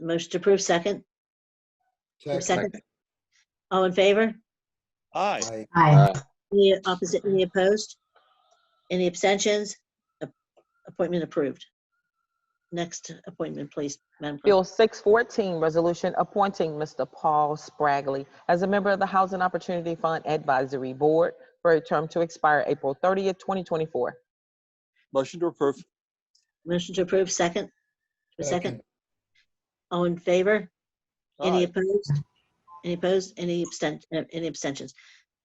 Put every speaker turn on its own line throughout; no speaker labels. Motion to approve, second? Second? All in favor?
Aye.
Aye.
Aye.
Any opposite, any opposed? Any abstentions? A- Appointment approved. Next appointment, please, Madam Clerk.
Bill 614, resolution appointing Mr. Paul Spragley as a member of the Housing Opportunity Fund Advisory Board for a term to expire April 30th, 2024.
Motion to approve.
Motion to approve, second? A second?
Second.
All in favor? Any
Aye.
opposed? Any opposed? Any absten, uh, any abstentions?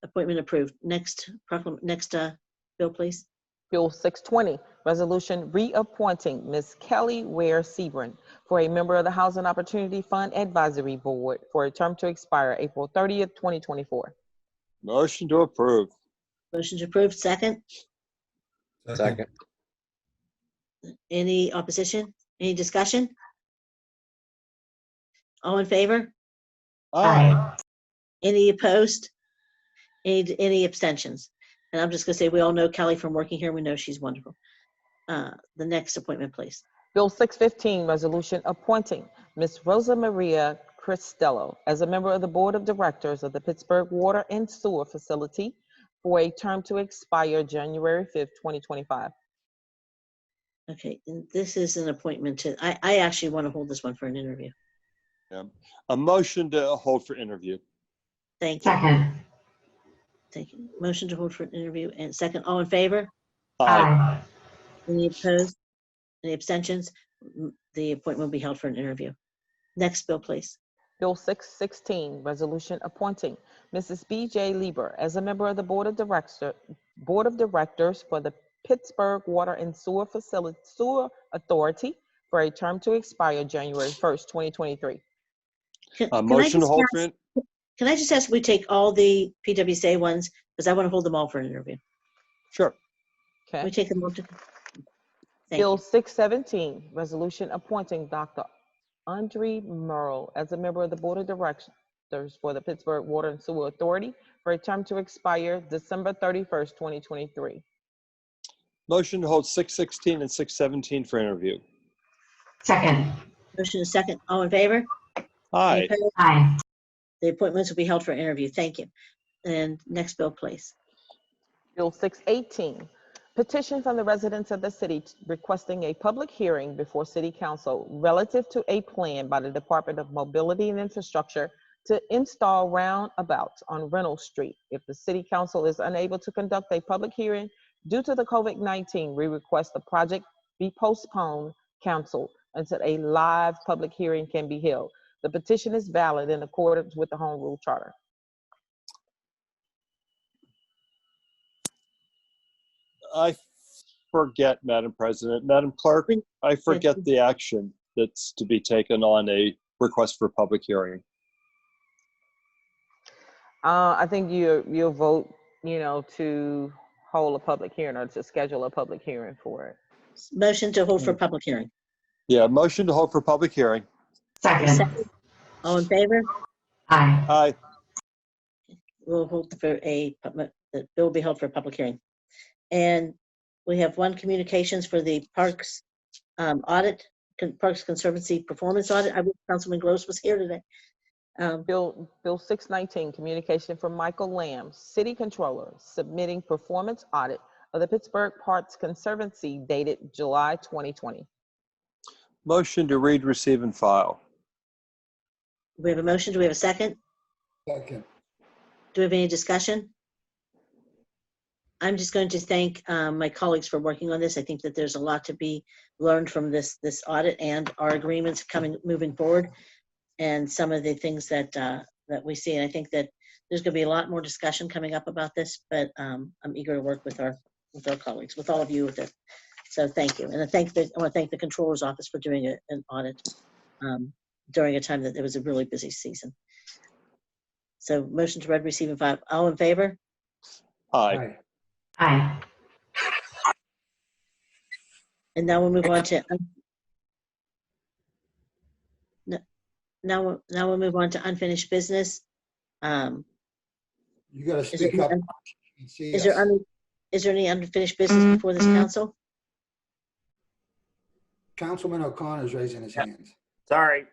Appointment approved. Next proclam, next, uh, bill, please.
Bill 620, resolution reappointing Ms. Kelly Ware Sebran for a member of the Housing Opportunity Fund Advisory Board for a term to expire April 30th, 2024.
Motion to approve.
Motion to approve, second?
Second.
Any opposition? Any discussion? All in favor?
Aye.
Any opposed? Any, any abstentions? And I'm just gonna say, we all know Kelly from working here. We know she's wonderful. Uh, the next appointment, please.
Bill 615, resolution appointing Ms. Rosa Maria Cristello as a member of the Board of Directors of the Pittsburgh Water and Sewer Facility for a term to expire January 5th, 2025.
Okay, and this is an appointment to, I, I actually want to hold this one for an interview.
A motion to hold for interview.
Thank you.
Second.
Thank you. Motion to hold for an interview and second, all in favor?
Aye.
Any opposed? Any abstentions? M- The appointment will be held for an interview. Next bill, please.
Bill 616, resolution appointing Mrs. B.J. Lieber as a member of the Board of Director, Board of Directors for the Pittsburgh Water and Sewer Facility, Sewer Authority for a term to expire January 1st, 2023.
Can- can
A
I
Uh, motion to
just
hold
ask-
for, in-
Can I just ask, we take all the PWSA ones, because I want to hold them all for an interview.
sure.
Okay?
We take them all to, Thank
Bill 617, resolution appointing Dr. Andre Merle as a member of the Board of Directors for the Pittsburgh Water and Sewer Authority for a term to expire December 31st, 2023.
Motion to hold 616 and 617 for interview.
Second.
motion is second, all in favor? Any
Aye.
opposed?
Aye.
The appointments will be held for an interview. Thank you. And next bill, please.
Bill 618, petition from the residents of the city requesting a public hearing before City Council relative to a plan by the Department of Mobility and Infrastructure to install roundabouts on Reynolds Street. If the City Council is unable to conduct a public hearing due to the COVID-19, we request the project be postponed, council, until a live public hearing can be held. The petition is valid in accordance with the Home Rule Charter.
I forget, Madam President. Madam Clerk, I forget the action that's to be taken on a request for public hearing.
Uh, I think you, you'll vote, you know, to hold a public hearing or to schedule a public hearing for it.
Motion to hold for public hearing.
Yeah, motion to hold for public hearing.
Second.
Second. All in favor?
Aye.
Aye.
We'll hold for a, pub- the bill will be held for a public hearing. And we have one communications for the Parks um, audit, Con- Parks Conservancy Performance Audit. I wish Councilman Gross was here today. Um,
Bill, Bill 619, communication from Michael Lamb, City Controller, submitting performance audit of the Pittsburgh Parks Conservancy dated July 2020.
Motion to read, receive, and file.
We have a motion. Do we have a second?
Second.
Do we have any discussion? I'm just going to thank um, my colleagues for working on this. I think that there's a lot to be learned from this, this audit and our agreements coming, moving forward. And some of the things that, uh, that we see. And I think that there's going to be a lot more discussion coming up about this, but um, I'm eager to work with our, with our colleagues, with all of you with it. So thank you. And I thank, the I want to thank the Controller's Office for doing a- an audit um, during a time that it was a really busy season. So motion to read, receive, and file. All in favor?
Aye.
Aye.
And now we'll move on to. un- No- Now, we'll- now we'll move on to unfinished business. Um,
You gotta
Is there
speak up.
un-
and see
is there,
us.
un- is there any unfinished business before this council?
Councilman O'Connor's raising his hands.
Sorry.